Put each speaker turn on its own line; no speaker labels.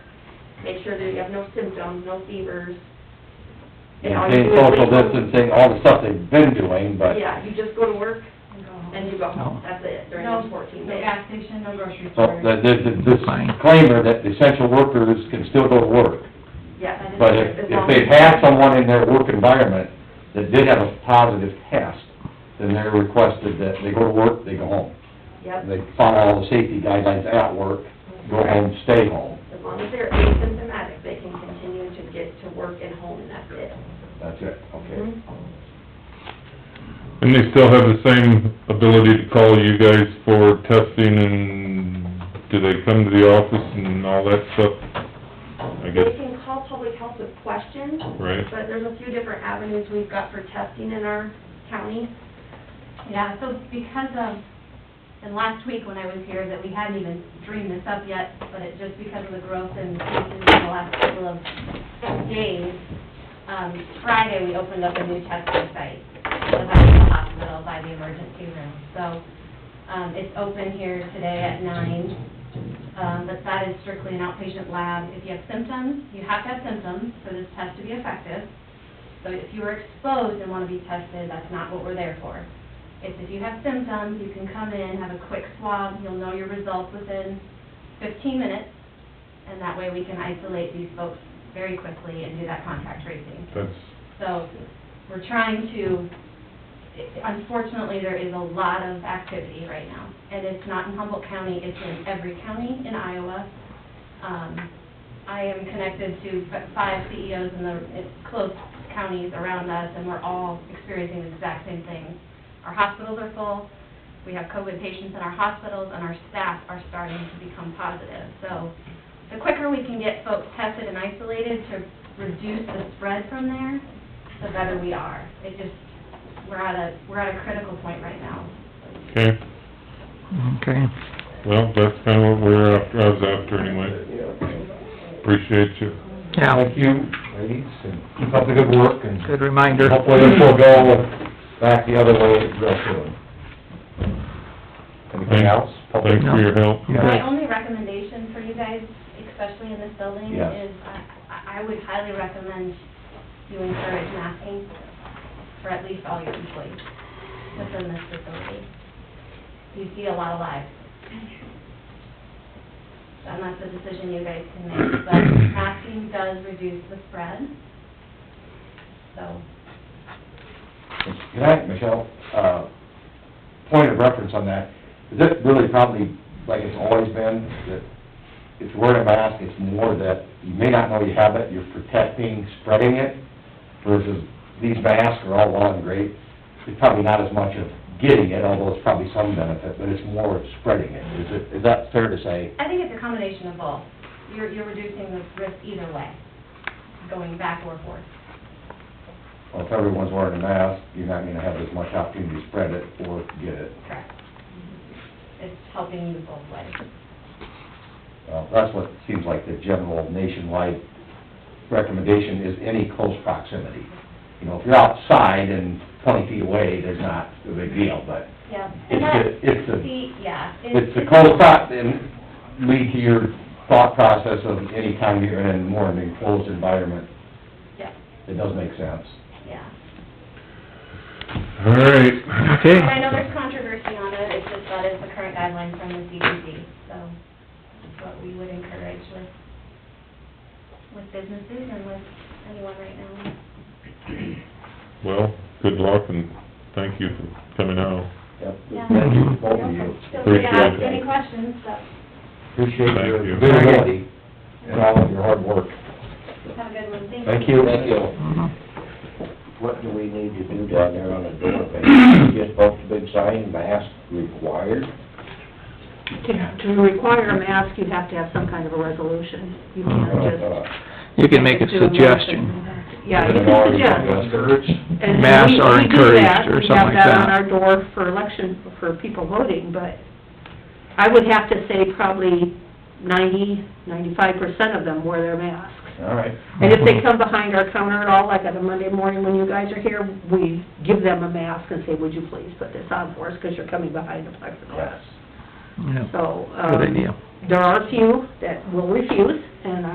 make sure that you have no symptoms, no fevers. And all you
Maintain
do is-
social distancing, all the stuff they've been doing, but
Yeah, you just go to work
No,
and you go home, that's it, during those fourteen
No
days.
gas station, no grocery
so
store.
the- there's a disclaimer that essential workers can still go to work.
Yes.
But if, if they had someone in their work environment that did have a positive test, then they're requested that they go to work, they go home.
Yep,
They follow all the safety guidelines at work, go home, stay home.
as long as they're asymptomatic, they can continue to get to work and home, and that's it.
That's it, okay.
Mhm.
And they still have the same ability to call you guys for testing and do they come to the office and all that stuff? I
They
guess,
can call public health with questions,
right?
but there's a few different avenues we've got for testing in our county.
Yeah, so because of, and last week when I was here, that we hadn't even dreamed this up yet, but it, just because of the growth in cases in the last couple of days, um, Friday, we opened up a new testing site, by the hospital, by the emergency room. So, um, it's open here today at nine, um, but that is strictly an outpatient lab. If you have symptoms, you have to have symptoms for this test to be effective. So if you were exposed and want to be tested, that's not what we're there for. It's if you have symptoms, you can come in, have a quick swab, you'll know your results within fifteen minutes, and that way we can isolate these folks very quickly and do that contact tracing.
That's,
So we're trying to, unfortunately, there is a lot of activity right now. And it's not in Humboldt County, it's in every county in Iowa. Um, I am connected to f- five CEOs in the in close counties around us, and we're all experiencing the exact same thing. Our hospitals are full, we have COVID patients in our hospitals, and our staff are starting to become positive. So the quicker we can get folks tested and isolated to reduce the spread from there, the better we are. It just, we're at a, we're at a critical point right now.
okay,
Okay.
well, that's kinda what we're after, I was after anyway. Appreciate you.
Yeah,
Thank you, ladies, and keep up the good work, and
good reminder.
hopefully this will go back the other way real soon. Anything else? Public-
Thanks for your help.
You got
My
it.
only recommendation for you guys, especially in this building,
Yeah.
is I, I would highly recommend you encourage masking for at least all your employees within this facility. You see a lot of lives. And that's a decision you guys can make, but masking does reduce the spread. So,
Can I, Michelle, uh, point of reference on that, is it really probably, like it's always been, that if you're wearing a mask, it's more that you may not know you have it, you're protecting, spreading it, versus these masks are all well and great, it's probably not as much of getting it, although it's probably some benefit, but it's more of spreading it. Is it, is that fair to say?
I think it's a combination of both. You're, you're reducing the risk either way, going back or forth.
Well, if everyone's wearing a mask, you're not gonna have as much opportunity to spread it or get it.
Correct. Mm-hmm. It's helping you both ways.
Well, Uh, that's what seems like the general nationwide recommendation is any close proximity. You know, if you're outside and twenty feet away, there's not a big deal, but
Yeah.
it's the, it's the,
See, yeah.
it's the close prox, and lead to your thought process of any time you're in more of an enclosed environment,
Yeah,
it does make sense.
yeah.
All right.
Okay.
I know there's controversy on it, it's just that is the current guideline from the CDC, so that's what we would encourage with, with businesses and with anyone right now.
Well, good luck and thank you for coming out.
Yep.
Yeah.
Thank you, both of you.
Feel free to ask
Appreciate it.
any questions, but
Appreciate
Thank
your
you.
visibility and all of your hard work.
have a good one, thank you.
Thank you. Thank you.
Mhm.
What do we need to do down there on the door page? Just post a big sign, mask required?
To to require a mask, you have to have some kind of a resolution. You
Uh,
can't
Uh,
just...
You can make a
do nothing.
suggestion.
Yeah, you can suggest. And we-
Masks are
we do that.
encouraged or something like
We have that
that.
on our door for election, for people voting, but I would have to say probably ninety, ninety-five percent of them wear their masks.
All right.
And if
Mm-hmm.
they come behind our counter at all, like on a Monday morning when you guys are here, we give them a mask and say, would you please put this on for us, because you're coming behind the plexiglass.
Yeah,
So, um...
good idea.
There are a few that will refuse, and